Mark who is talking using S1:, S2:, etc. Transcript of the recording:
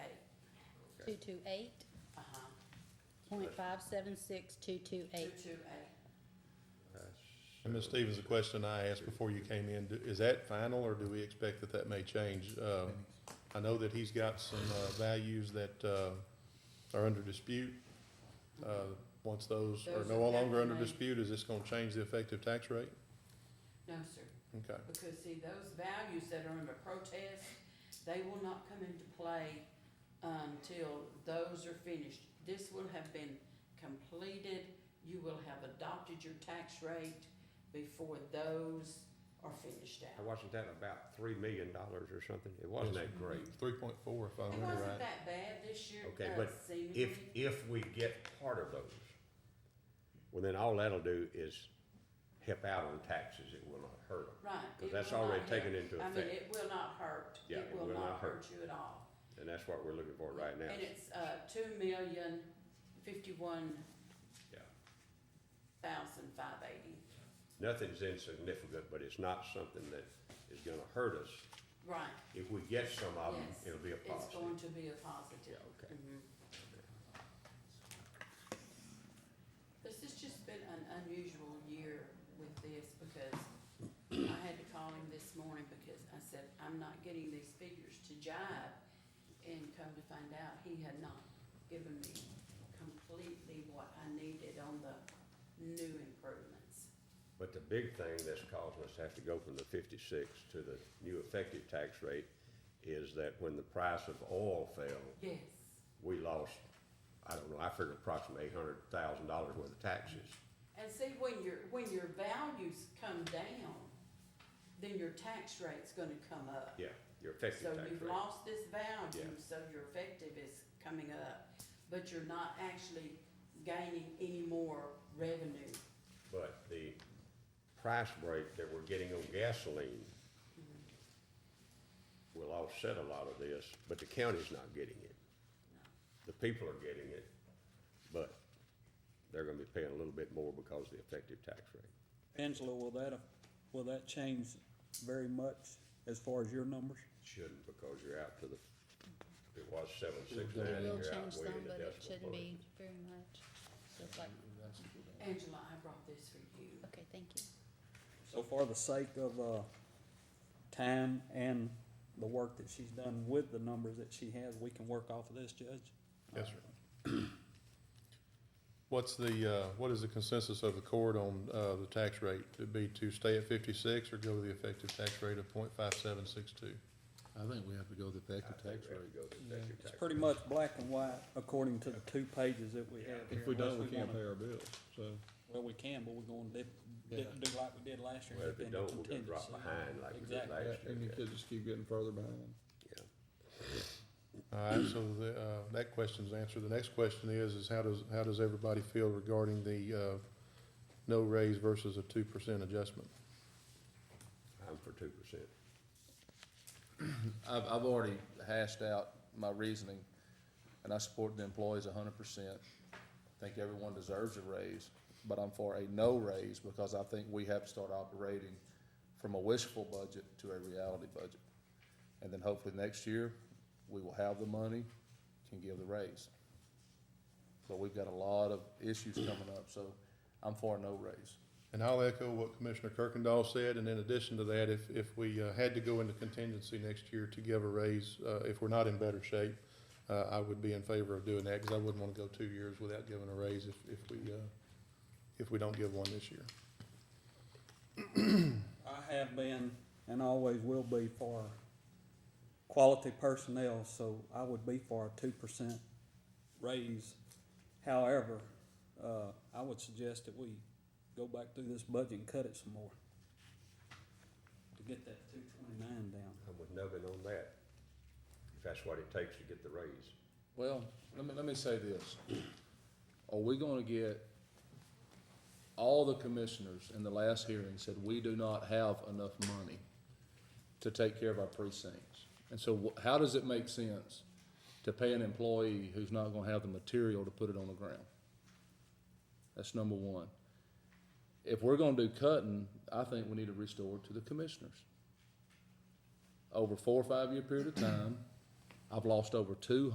S1: two two eight,
S2: Uh-huh,
S1: point five seven six two two eight.
S2: two-two-eight.
S3: And Ms. Stevens, the question I asked before you came in, do- is that final or do we expect that that may change? Uh, I know that he's got some uh, values that uh, are under dispute. Uh, Once those are
S2: Those
S3: no
S2: are
S3: longer under
S2: definitely-
S3: dispute, is this gonna change the effective tax rate?
S2: No, sir,
S3: Okay,
S2: because see, those values that are under protest, they will not come into play until those are finished. This will have been completed, you will have adopted your tax rate before those are finished
S4: I
S2: out.
S4: wasn't that about three million dollars or something? It wasn't that great.
S3: three point four if I
S2: It
S3: remember
S2: wasn't
S3: right.
S2: that bad this year,
S4: Okay,
S2: uh,
S4: but
S2: seemingly.
S4: If, if we get part of those, well, then all that'll do is help out on taxes. It will not hurt them.
S2: Right.
S4: Because
S2: it
S4: that's
S2: will not
S4: already
S2: hurt.
S4: taken into
S2: I mean,
S4: effect.
S2: it will not hurt.
S4: Yeah,
S2: It will not hurt you at all.
S4: And that's what we're looking for right now.
S2: And it's, uh, two million, fifty-one
S4: Yeah.
S2: thousand, five eighty.
S4: Nothing's insignificant, but it's not something that is gonna hurt us.
S2: Right,
S4: If we get some of them,
S2: Yes,
S4: it'll be a
S2: it's
S4: positive.
S2: going to be a
S4: Yeah,
S2: positive.
S4: okay.
S2: Mhm. This has just been an unusual year with this because I had to call him this morning because I said, I'm not getting these figures to jive. And come to find out, he had not given me completely what I needed on the new improvements.
S4: But the big thing that's causing us to have to go from the fifty-six to the new effective tax rate is that when the price of oil fell,
S2: Yes,
S4: we lost, I don't know, I figured approximately eight hundred thousand dollars worth of taxes.
S2: and see, when your, when your values come down, then your tax rate's gonna come up.
S4: Yeah, your effective
S2: So
S4: tax
S2: you've
S4: rate.
S2: lost this value,
S4: Yeah.
S2: so your effective is coming up, but you're not actually gaining any more revenue.
S4: But the price break that we're getting on gasoline will offset a lot of this, but the county's not getting it. The people are getting it, but they're gonna be paying a little bit more because of the effective tax rate.
S5: Angela, will that, will that change very much as far as your numbers?
S4: Shouldn't because you're out to the, it was seven six
S1: It
S4: nine,
S1: will
S4: you're out
S1: change
S4: way
S1: some,
S4: in the
S1: but it
S4: decimal
S1: shouldn't
S4: point.
S1: be very much. Just like,
S2: Angela, I brought this for you.
S1: okay, thank you.
S5: So for the sake of, uh, time and the work that she's done with the numbers that she has, we can work off of this, Judge?
S3: Yes, sir. What's the, uh, what is the consensus of the court on uh, the tax rate? It'd be to stay at fifty-six or go to the effective tax rate of point five seven six two?
S6: I think we have to go with the
S4: I
S6: effective
S4: think
S6: tax
S4: we have
S6: rate.
S4: to go to the effective
S5: It's
S4: tax
S5: pretty
S4: rate.
S5: much black and white according to the two pages that we have here.
S6: If we don't,
S5: unless
S6: we can't
S5: wanna-
S6: pay our bills, so.
S5: Well, we can, but we're gonna dip, dip, do like we did last year.
S4: Well, if
S5: dip
S4: it
S5: into
S4: don't, we're gonna drop
S5: contingency.
S4: behind like we did
S5: Exactly.
S4: last year.
S6: And you could just keep getting further behind.
S4: Yeah.
S3: All right, so the, uh, that question's answered. The next question is, is how does, how does everybody feel regarding the, uh, no raise versus a two percent adjustment?
S4: I'm for two percent.
S7: I've, I've already hashed out my reasoning, and I support the employees hundred percent. I think everyone deserves a raise, but I'm for a no raise because I think we have to start operating from a wishful budget to a reality budget. And then hopefully next year, we will have the money, can give the raise. But we've got a lot of issues coming up, so I'm for a no raise.
S3: And I'll echo what Commissioner Kirkendall said, and in addition to that, if, if we uh, had to go into contingency next year to give a raise, uh, if we're not in better shape, uh, I would be in favor of doing that, because I wouldn't want to go two years without giving a raise if, if we, uh, if we don't give one this year.
S5: I have been and always will be for quality personnel, so I would be for a two percent raise. However, uh, I would suggest that we go back through this budget and cut it some more to get that two twenty-nine down.
S4: I'm with Nubbin on that, if that's what it takes to get the raise.
S7: Well, let me, let me say this. Are we gonna get, all the commissioners in the last hearing said, we do not have enough money to take care of our precincts. And so wh- how does it make sense to pay an employee who's not gonna have the material to put it on the ground? That's number one. If we're gonna do cutting, I think we need to restore it to the commissioners. Over four or five year period of time, I've lost over two